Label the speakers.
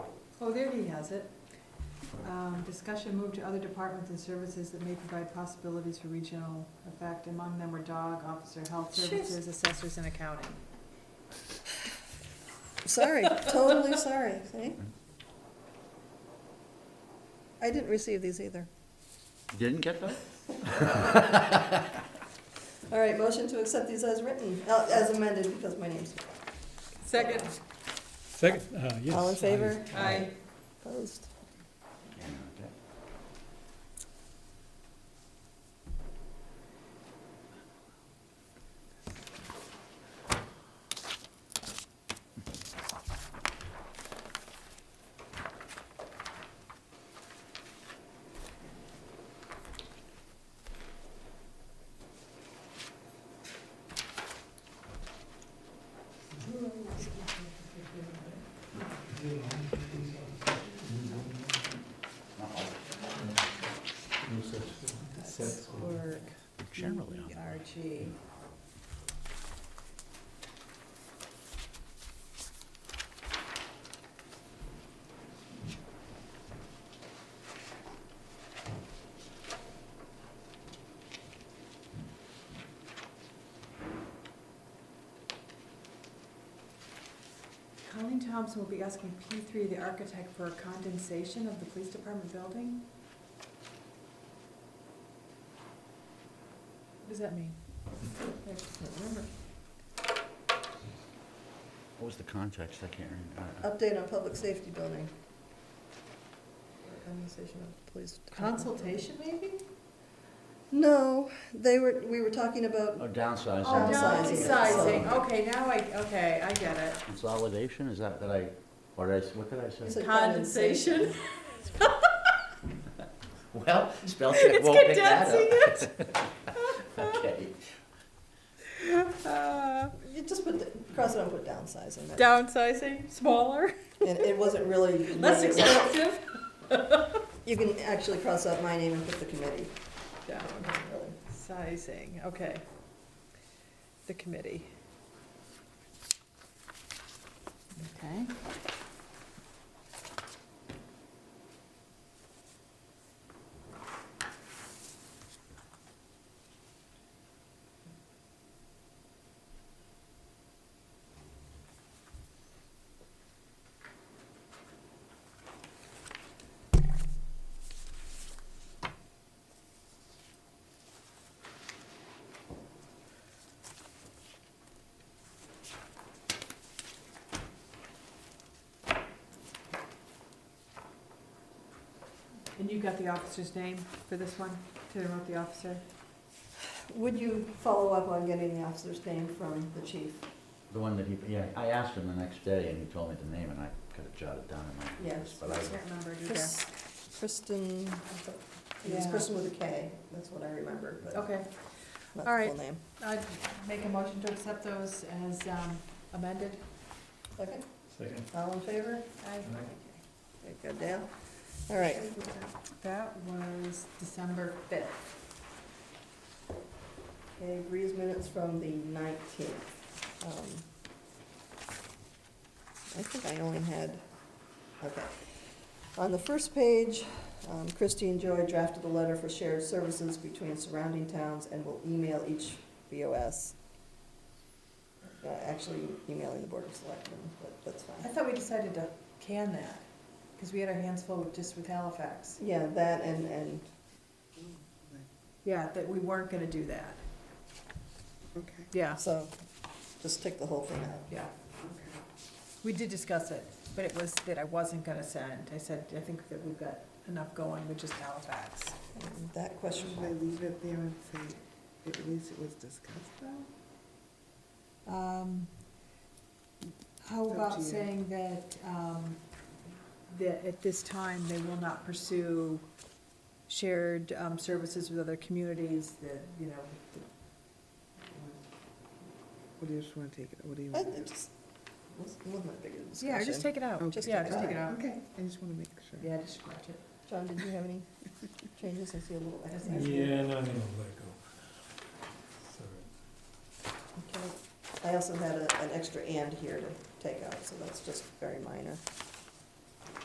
Speaker 1: Oh, there he has it. Um, Discussion moved to other departments and services that may provide possibilities for regional effect. Among them were dog, officer, health
Speaker 2: Jeez.
Speaker 1: services, assessors, and accounting.
Speaker 2: Sorry, totally sorry, see? I didn't receive these either.
Speaker 3: Didn't get that?
Speaker 2: All right, motion to accept these as written, uh, as amended, because my name's,
Speaker 1: Second,
Speaker 4: Second, uh, yes.
Speaker 2: all in
Speaker 4: I-
Speaker 2: favor?
Speaker 1: aye.
Speaker 2: Opposed?
Speaker 1: That's Clerk,
Speaker 3: Generally, I'm-
Speaker 1: ERG. Colleen Thompson will be asking P three, the architect, for a condensation of the police department building? What does that mean? I can't remember.
Speaker 3: What was the context? I can't remember.
Speaker 2: Update on public safety building. Conversation of the police. department.
Speaker 1: Consultation, maybe?
Speaker 2: No, they were, we were talking
Speaker 3: Oh,
Speaker 2: about,
Speaker 3: downsizing.
Speaker 1: Oh,
Speaker 2: Downsizing.
Speaker 1: downsizing, Oh. okay, now I, okay, I get it.
Speaker 3: Consolidation, is that, that I, or did I, s- what did I
Speaker 2: It's
Speaker 3: say?
Speaker 2: a- Condensation.
Speaker 1: Condensation,
Speaker 3: Well, spell check
Speaker 1: it's
Speaker 3: won't pick that
Speaker 1: condensing
Speaker 3: up.
Speaker 1: it.
Speaker 3: Okay.
Speaker 1: Uh,
Speaker 2: you just put, the- cross it out, put downsizing. that-
Speaker 1: Downsizing, smaller,
Speaker 2: And it wasn't really.
Speaker 1: less expensive.
Speaker 2: You can actually cross out my name and put the committee.
Speaker 1: Downsizing, okay. The committee. Okay. And you've got the officer's name for this one, to remote the officer?
Speaker 2: Would you follow up on getting the officer's name from the chief?
Speaker 3: The one that he, yeah, I asked him the next day and he told me the name and I could have jotted down in my.
Speaker 2: Yes.
Speaker 3: But I,
Speaker 1: Can't remember it either.
Speaker 2: Chris- Kristen, I thought- it was
Speaker 1: Yeah.
Speaker 2: Kristen with a K, that's what I remember, but not
Speaker 1: Okay,
Speaker 2: the
Speaker 1: all right.
Speaker 2: full name.
Speaker 1: I'd make a motion to accept those as um, amended.
Speaker 2: Okay,
Speaker 4: Second.
Speaker 2: all in favor?
Speaker 1: Aye.
Speaker 2: Okay, Good, Dale? All right,
Speaker 1: That was December fifth.
Speaker 2: okay, Breeze minutes from the nineteenth. Um, I think I only had, okay. On the first page, um, Christie and Joy drafted a letter for shared services between surrounding towns and will email each BOS. Uh, Actually emailing the Board of Selectmen, but that's fine.
Speaker 1: I thought we decided to can that, because we had our hands full with, just with Halifax.
Speaker 2: Yeah, that and, and,
Speaker 1: Yeah, that we weren't gonna do that. Okay. Yeah,
Speaker 2: so, just take the whole thing out.
Speaker 1: yeah. We did discuss it, but it was that I wasn't gonna send. I said, I think that we've got enough going with just Halifax.
Speaker 2: And That question,
Speaker 5: Should I leave it there and say, at least it was discussed though?
Speaker 1: Um, How
Speaker 5: It's up
Speaker 1: about
Speaker 5: to you.
Speaker 1: saying that, um, that at this time, they will not pursue shared, um, services with other communities, that, you know,
Speaker 5: What do you just wanna take it, what do you?
Speaker 2: I,
Speaker 1: Uh,
Speaker 5: want?
Speaker 2: it just, wasn't my biggest discussion.
Speaker 1: yeah, just take it out,
Speaker 5: Okay.
Speaker 1: just, yeah, just take it out.
Speaker 5: Okay, I just wanna make sure.
Speaker 1: Yeah, just scratch it.
Speaker 2: John, did you have any changes? I see a little X.
Speaker 1: Yeah.
Speaker 4: Yeah, no, I'm gonna let go. Sorry.
Speaker 2: Okay. I also had a, an extra and here to take out, so that's just very minor.